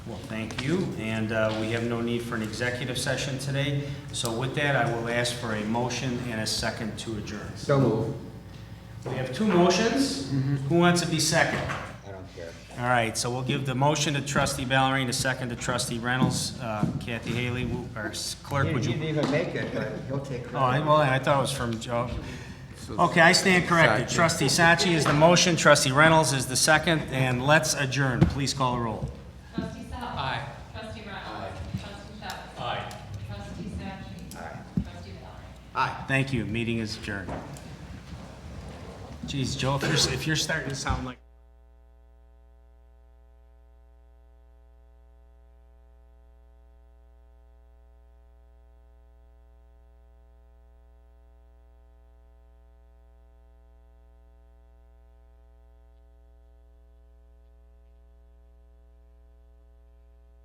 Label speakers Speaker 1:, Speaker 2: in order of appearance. Speaker 1: Well, thank you, and uh, we have no need for an executive session today. So with that, I will ask for a motion and a second to adjourn.
Speaker 2: So move.
Speaker 1: We have two motions. Who wants to be second?
Speaker 2: I don't care.
Speaker 1: All right, so we'll give the motion to trustee Ballerine, the second to trustee Reynolds. Uh, Kathy Haley, who- our clerk,
Speaker 2: You
Speaker 1: would you?
Speaker 2: didn't even make it, but he'll take
Speaker 1: Oh,
Speaker 2: credit.
Speaker 1: I- well, I thought it was from Joe. Okay, I stand corrected. Trustee Sachi is the motion, trustee Reynolds is the second, and let's adjourn. Please call the roll.
Speaker 3: Trustee Sal. Aye. Trustee Reynolds. Trustee Shaw. Aye. Trustee Sachi. Aye. Trustee Valerie.
Speaker 1: Thank you, meeting is adjourned. Geez, Joe, if you're, if you're starting to sound like.